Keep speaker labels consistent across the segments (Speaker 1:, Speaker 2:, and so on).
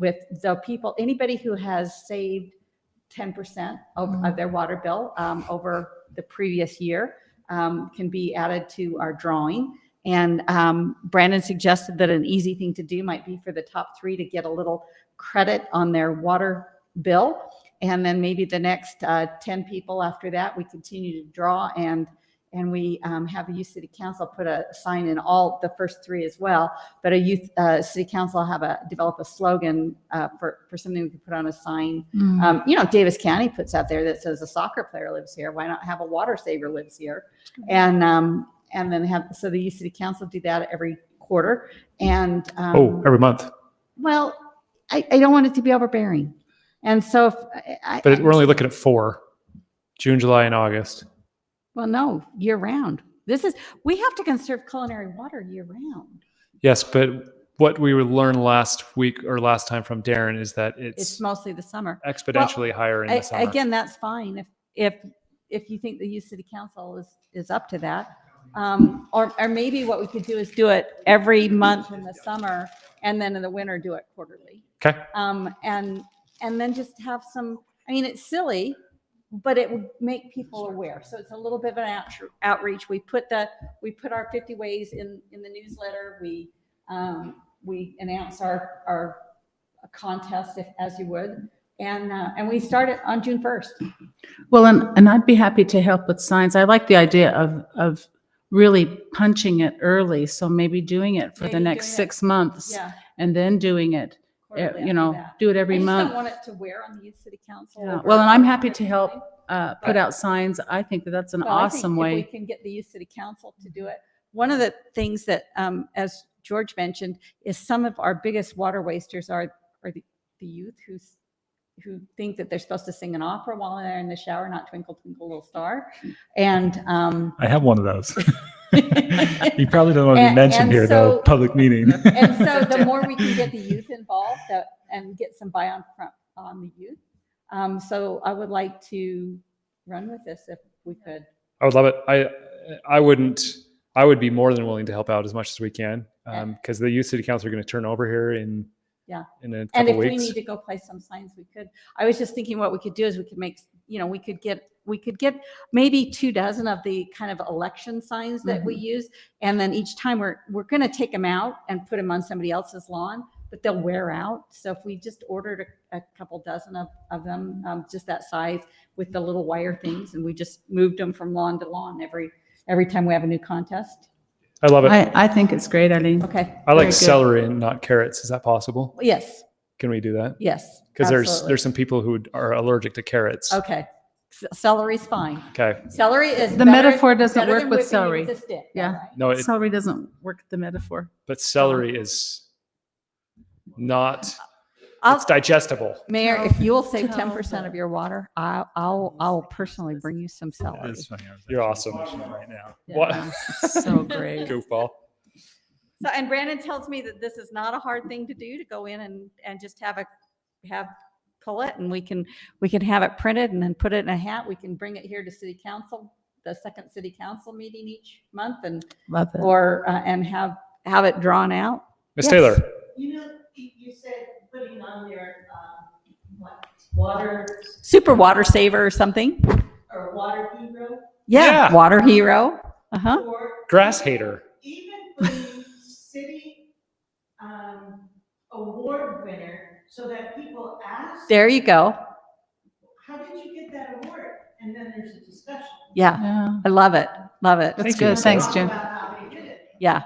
Speaker 1: with the people, anybody who has saved 10% of, of their water bill um, over the previous year um, can be added to our drawing. And um, Brandon suggested that an easy thing to do might be for the top three to get a little credit on their water bill. And then maybe the next uh, 10 people after that, we continue to draw and, and we um, have the youth city council put a sign in all, the first three as well. But a youth, uh, city council have a, develop a slogan uh, for, for something we could put on a sign
Speaker 2: Uh,
Speaker 1: um, you know, Davis County puts out there that says a soccer player lives here. Why not have a water saver lives here? And, um, and then have, so the youth city council do that every quarter. And,
Speaker 3: Oh,
Speaker 1: um,
Speaker 3: every month.
Speaker 1: well, I, I don't want it to be overbearing. And so if I,
Speaker 3: But it-
Speaker 1: I-
Speaker 3: we're only looking at four, June, July, and August.
Speaker 1: well, no, year round. This is, we have to conserve culinary water year round.
Speaker 3: Yes, but what we learned last week or last time from Darren is that
Speaker 1: It's
Speaker 3: it's
Speaker 1: mostly the summer.
Speaker 3: exponentially higher in
Speaker 1: A-
Speaker 3: the summer.
Speaker 1: Again, that's fine if, if, if you think the youth city council is, is up to that. Um, or, or maybe what we could do is do it every month in the summer and then in the winter do it quarterly.
Speaker 3: Okay.
Speaker 1: Um, and, and then just have some, I mean, it's silly, but it would make people aware. So it's a little bit of an outre- outreach. We put the, we put our 50 ways in, in the newsletter. We, um, we announce our, our contest if, as you would. And, uh, and we start it on June 1st.
Speaker 2: Well, and, and I'd be happy to help with signs. I like the idea of, of really punching it early. So maybe doing it for the
Speaker 1: Maybe
Speaker 2: next
Speaker 1: doing it-
Speaker 2: six months
Speaker 1: Yeah.
Speaker 2: and then doing it,
Speaker 1: quarterly
Speaker 2: eh,
Speaker 1: after
Speaker 2: you know,
Speaker 1: that.
Speaker 2: do it
Speaker 1: I
Speaker 2: every
Speaker 1: just don't
Speaker 2: month.
Speaker 1: want it to wear on the youth city council.
Speaker 2: Yeah.
Speaker 1: or-
Speaker 2: Well, and I'm happy to help. Uh,
Speaker 1: Right.
Speaker 2: put out signs. I think that that's an
Speaker 1: Well, I think
Speaker 2: awesome
Speaker 1: if
Speaker 2: way.
Speaker 1: We can get the youth city council to do it. One of the things that, um, as George mentioned, is some of our biggest water wasters are, are the, the youth who's, who think that they're supposed to sing an opera while they're in the shower, not twinkle, twinkle, little star. And, um,
Speaker 4: I have one of those. you probably don't want to
Speaker 1: And-
Speaker 4: be mentioned
Speaker 1: and
Speaker 4: here, though,
Speaker 1: so-
Speaker 4: public meeting.
Speaker 1: And so the more we can get the youth involved uh, and get some buy-on from, on the youth. Um, so I would like to run with this if we could.
Speaker 3: I would love it. I I wouldn't. I would be more than willing to help out as much as we can
Speaker 1: Yeah.
Speaker 3: because the youth city council are going to turn over here in
Speaker 1: Yeah.
Speaker 3: in a
Speaker 1: And
Speaker 3: couple
Speaker 1: if we
Speaker 3: weeks.
Speaker 1: need to go play some signs, we could. I was just thinking what we could do is we could make, you know, we could get, we could get maybe two dozen of the kind of election signs that
Speaker 3: Mm-hmm.
Speaker 1: we use. And then each time we're, we're going to take them out and put them on somebody else's lawn, but they'll wear out. So if we just ordered a, a couple dozen of, of them, um, just that size with the little wire things, and we just moved them from lawn to lawn every, every time we have a new contest.
Speaker 3: I love it. I,
Speaker 2: I, I think it's great, Eileen.
Speaker 1: Okay.
Speaker 2: very
Speaker 3: like
Speaker 2: good.
Speaker 3: celery and not carrots. Is that possible?
Speaker 1: Yes,
Speaker 3: Can we do that?
Speaker 1: yes.
Speaker 3: Because there's
Speaker 1: absolutely.
Speaker 3: there's some people who would- are allergic to carrots.
Speaker 1: Okay. C- Celery's fine.
Speaker 3: Okay.
Speaker 1: Celery is
Speaker 2: The
Speaker 1: better-
Speaker 2: metaphor doesn't
Speaker 1: better
Speaker 2: work
Speaker 1: than
Speaker 2: with
Speaker 1: whipping it
Speaker 2: celery.
Speaker 1: a stick, all
Speaker 2: Yeah.
Speaker 1: right.
Speaker 3: No, it,
Speaker 2: Celery doesn't work the metaphor.
Speaker 3: but celery
Speaker 1: Um,
Speaker 3: is not.
Speaker 1: I'll,
Speaker 3: It's digestible.
Speaker 1: Mayor, if you'll save
Speaker 2: No,
Speaker 1: ten percent of your water, I'll, I'll, I'll personally bring you some celery.
Speaker 4: That's funny, I was
Speaker 3: You're
Speaker 4: actually watching
Speaker 3: awesome.
Speaker 4: it Right now.
Speaker 3: What?
Speaker 2: So great.
Speaker 3: Goofball.
Speaker 1: So, and Brandon tells me that this is not a hard thing to do, to go in and, and just have a, have, pull it and we can, we can have it printed and then put it in a hat. We can bring it here to city council, the second city council meeting each month and,
Speaker 2: Love it.
Speaker 1: or, uh, and have, have it drawn out.
Speaker 3: Miss
Speaker 1: Yes.
Speaker 3: Taylor.
Speaker 5: You know, you you said putting on their, um, what, water
Speaker 1: Super water saver or something.
Speaker 5: or water hero?
Speaker 1: Yeah,
Speaker 3: Yeah.
Speaker 1: water hero. Uh-huh.
Speaker 5: Or
Speaker 3: Grass hater.
Speaker 5: even putting city, um, award winner so that people ask,
Speaker 1: There you go.
Speaker 5: how did you get that award? And then there's a discussion.
Speaker 1: Yeah,
Speaker 2: Yeah,
Speaker 1: I love it. Love it.
Speaker 2: that's
Speaker 3: Thank you,
Speaker 2: good.
Speaker 3: Miss
Speaker 2: Thanks,
Speaker 5: Talk
Speaker 2: Jim.
Speaker 5: About how they did it.
Speaker 1: Yeah.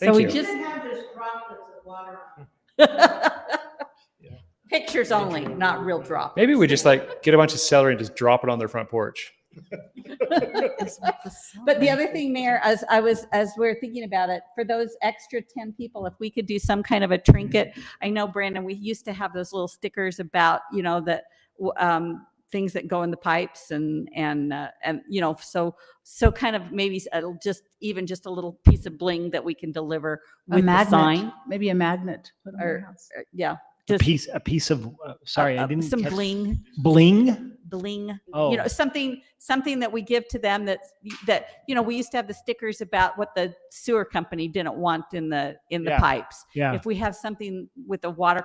Speaker 3: Thank
Speaker 1: so
Speaker 3: you.
Speaker 1: we
Speaker 5: You
Speaker 1: just
Speaker 5: didn't have just droplets of water. on it.
Speaker 1: pictures only, not real drop.
Speaker 3: Maybe we just like get a bunch of celery and just drop it on their front porch.
Speaker 1: But the other thing, Mayor, as I was, as we we're thinking about it, for those extra 10 people, if we could do some kind of a trinket. I know, Brandon, we used to have those little stickers about, you know, that, w- um, things that go in the pipes and, and, uh, and, you know, so, so kind of maybe s- it'll just, even just a little piece of bling that we can deliver
Speaker 2: A
Speaker 1: with the
Speaker 2: magnet.
Speaker 1: sign.
Speaker 2: Maybe a magnet. put on your
Speaker 1: Or-
Speaker 2: house.
Speaker 1: Uh, Yeah.
Speaker 6: A
Speaker 1: just-
Speaker 6: piece, a piece of, uh, sorry,
Speaker 1: uh,
Speaker 6: I
Speaker 1: uh,
Speaker 6: didn't.
Speaker 1: Some
Speaker 6: catch-
Speaker 1: bling,
Speaker 6: Bling?
Speaker 1: bling.
Speaker 6: Oh,
Speaker 1: you know something something that we give to them that that you know we used to have the stickers about what the sewer company didn't want in the in the
Speaker 6: Yeah.
Speaker 1: pipes
Speaker 6: yeah.
Speaker 1: if we have something with a water